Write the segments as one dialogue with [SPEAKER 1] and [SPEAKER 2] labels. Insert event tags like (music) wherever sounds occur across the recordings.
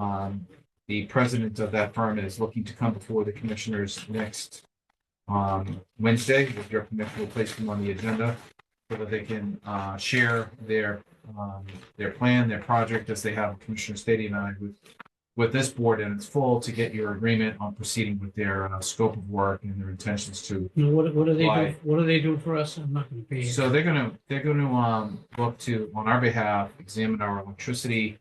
[SPEAKER 1] Um, the president of that firm is looking to come before the commissioners next um, Wednesday, with your permission, we'll place them on the agenda so that they can uh, share their um, their plan, their project, as they have Commissioner Stadium and I with with this board in its full to get your agreement on proceeding with their uh, scope of work and their intentions to
[SPEAKER 2] You know, what, what do they do,
[SPEAKER 1] Why?
[SPEAKER 2] what do they do for us? I'm not gonna be here.
[SPEAKER 1] So they're gonna, they're gonna, um, look to, on our behalf, examine our electricity,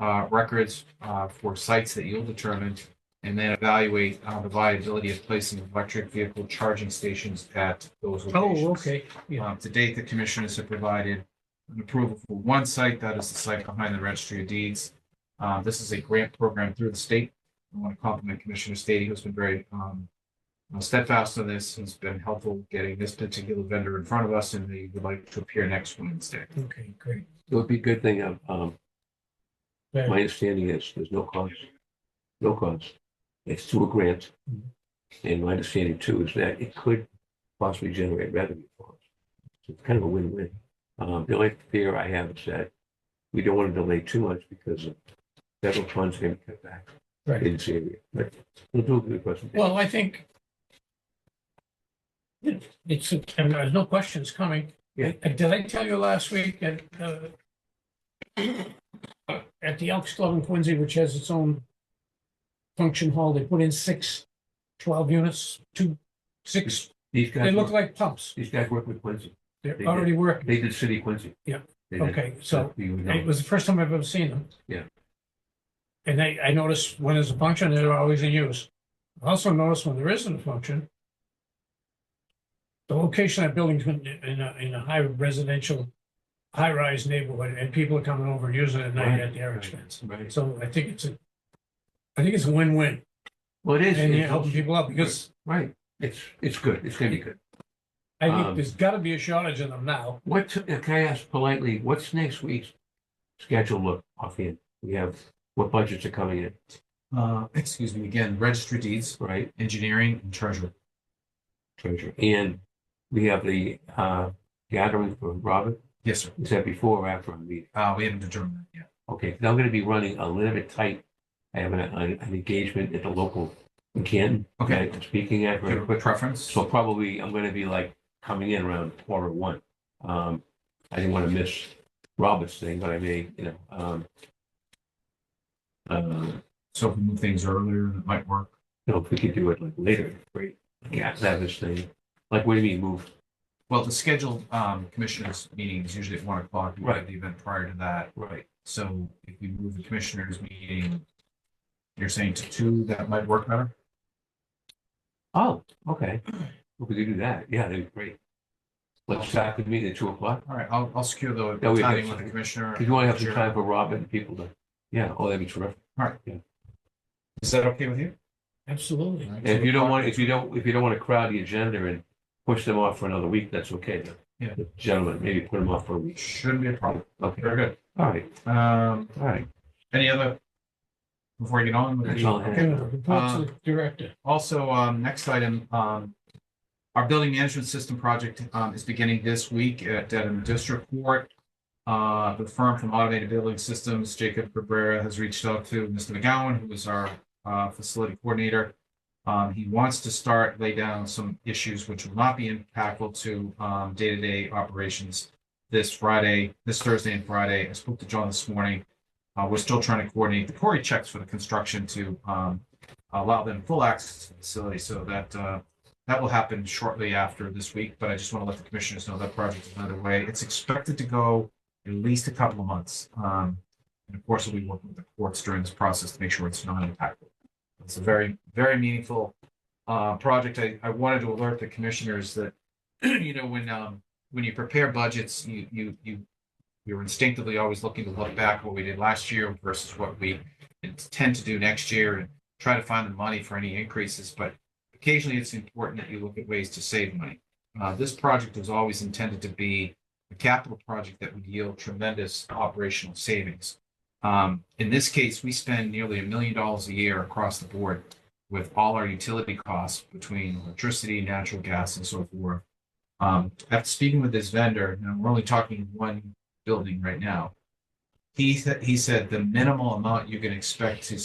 [SPEAKER 1] uh, records, uh, for sites that you'll determine. And then evaluate, uh, the viability of placing electric vehicle charging stations at those locations.
[SPEAKER 2] Oh, okay, yeah,
[SPEAKER 1] Um, to date, the commissioners have provided an approval for one site, that is the site behind the registry of deeds. Uh, this is a grant program through the state. I want to compliment Commissioner Stady, who's been very, um, steadfast on this, has been helpful getting this particular vendor in front of us, and they would like to appear next Wednesday.
[SPEAKER 2] okay, great.
[SPEAKER 3] It would be a good thing, uh, um,
[SPEAKER 2] Very-
[SPEAKER 3] my understanding is there's no cost, no cost. It's through a grant.
[SPEAKER 2] Mhm.
[SPEAKER 3] And my understanding too is that it could possibly generate revenue for us. So it's kind of a win-win. Um, the only fear I have is that we don't want to delay too much because of federal funds going to cut back
[SPEAKER 2] Right.
[SPEAKER 3] in this area. But we'll do a good presentation.
[SPEAKER 2] Well, I think it's, I mean, there's no questions coming.
[SPEAKER 3] Yeah.
[SPEAKER 2] And Did I tell you last week that, uh, (coughs) at the Elks Club in Quincy, which has its own function hall, they put in six 12 units, two, six,
[SPEAKER 3] These
[SPEAKER 2] they
[SPEAKER 3] guys,
[SPEAKER 2] look
[SPEAKER 3] work-
[SPEAKER 2] like pumps.
[SPEAKER 3] these guys work with Quincy.
[SPEAKER 2] They're
[SPEAKER 3] They do.
[SPEAKER 2] already working.
[SPEAKER 3] They did City Quincy.
[SPEAKER 2] Yeah.
[SPEAKER 3] They did.
[SPEAKER 2] Okay, so
[SPEAKER 3] You know.
[SPEAKER 2] It was the first time I've ever seen them.
[SPEAKER 3] Yeah.
[SPEAKER 2] And I, I noticed when there's a function, they're always in use. I also noticed when there isn't a function, the location of buildings in, in a, in a high residential, high-rise neighborhood, and people are coming over and using it at night at their
[SPEAKER 3] Right,
[SPEAKER 2] expense.
[SPEAKER 3] Right.
[SPEAKER 2] So I think it's a, I think it's a win-win,
[SPEAKER 3] Well, it is.
[SPEAKER 2] and you're
[SPEAKER 3] it's
[SPEAKER 2] helping
[SPEAKER 3] also-
[SPEAKER 2] people out, because
[SPEAKER 3] Right, it's, it's good, it's gonna be good.
[SPEAKER 2] I think
[SPEAKER 3] Um,
[SPEAKER 2] there's gotta be a shortage in them now.
[SPEAKER 3] What, uh, can I ask politely, what's next week's schedule look offhand? We have, what budgets are coming in,
[SPEAKER 1] Uh, excuse me, again, registry deeds,
[SPEAKER 3] right,
[SPEAKER 1] engineering, and treasurer.
[SPEAKER 3] treasurer? And we have the, uh, gathering for Robert,
[SPEAKER 1] Yes, sir.
[SPEAKER 3] is that before or after our meeting?
[SPEAKER 1] Uh, we haven't determined that yet.
[SPEAKER 3] Okay, 'cause I'm gonna be running a little bit tight. I have an, an an engagement at the local in Canton.
[SPEAKER 1] Okay.
[SPEAKER 3] that I'm Speaking at
[SPEAKER 1] Do you
[SPEAKER 3] very
[SPEAKER 1] have a
[SPEAKER 3] quick.
[SPEAKER 1] preference?
[SPEAKER 3] So probably I'm gonna be like coming in around quarter one. Um, I didn't want to miss Robert's thing, but I may, you know, um. Uh,
[SPEAKER 1] So if we move things earlier, that might work.
[SPEAKER 3] you know, if we could do it like later, great. Yeah, have this thing, like, what do you mean move?
[SPEAKER 1] Well, the scheduled um commissioners meeting is usually at one o'clock. We have
[SPEAKER 3] Right.
[SPEAKER 1] the event prior to that.
[SPEAKER 3] Right.
[SPEAKER 1] So if we move the commissioners meeting, you're saying to two, that might work better?
[SPEAKER 3] Oh, okay. If we could do that, yeah, that'd be great. Let's start the meeting at two o'clock,
[SPEAKER 1] All right, I'll I'll secure the
[SPEAKER 3] That way we have
[SPEAKER 1] timing with the
[SPEAKER 3] something.
[SPEAKER 1] commissioner.
[SPEAKER 3] because you want to have some
[SPEAKER 1] Sure.
[SPEAKER 3] time for Robert and people to, yeah, oh, that'd be terrific.
[SPEAKER 1] Is that okay with you?
[SPEAKER 2] Absolutely.
[SPEAKER 1] All right,
[SPEAKER 3] And if
[SPEAKER 1] two
[SPEAKER 3] you don't
[SPEAKER 1] o'clock.
[SPEAKER 3] want, if you don't, if you don't want to crowd the agenda and push them off for another week, that's okay.
[SPEAKER 1] Yeah.
[SPEAKER 3] Gentlemen, maybe put them off for a week.
[SPEAKER 1] Shouldn't be a problem.
[SPEAKER 3] Okay,
[SPEAKER 1] Very good.
[SPEAKER 3] all right,
[SPEAKER 1] Um,
[SPEAKER 3] all right.
[SPEAKER 1] any other? Before I get on with
[SPEAKER 3] That's
[SPEAKER 1] the-
[SPEAKER 3] all I
[SPEAKER 2] Okay,
[SPEAKER 3] have.
[SPEAKER 2] reports
[SPEAKER 3] Uh,
[SPEAKER 2] to the director.
[SPEAKER 1] Also, um, next item, um, our building management system project, um, is beginning this week at Dedham District Court. Uh, the firm from Automated Building Systems, Jacob Cabrera, has reached out to Mr. McGowan, who is our, uh, facility coordinator. Um, he wants to start, lay down some issues which will not be impactful to, um, day-to-day operations this Friday, this Thursday and Friday. I spoke to John this morning. Uh, we're still trying to coordinate the Cory checks for the construction to, um, allow them full access to the facility so that uh, that will happen shortly after this week, but I just want to let the commissioners know that project is underway. It's expected to go at least a couple of months. Um, and of course, we'll be working with the courts during this process to make sure it's not impactful. It's a very, very meaningful uh, project. I, I wanted to alert the commissioners that, (clears throat) you know, when um, when you prepare budgets, you you you you're instinctively always looking to look back what we did last year versus what we intend to do next year and try to find the money for any increases, but occasionally it's important that you look at ways to save money. Uh, this project was always intended to be a capital project that would yield tremendous operational savings. Um, in this case, we spend nearly a million dollars a year across the board with all our utility costs between electricity, natural gas, and so forth. Um, after speaking with this vendor, now we're only talking one building right now. He, sa- he said the minimal amount you can expect to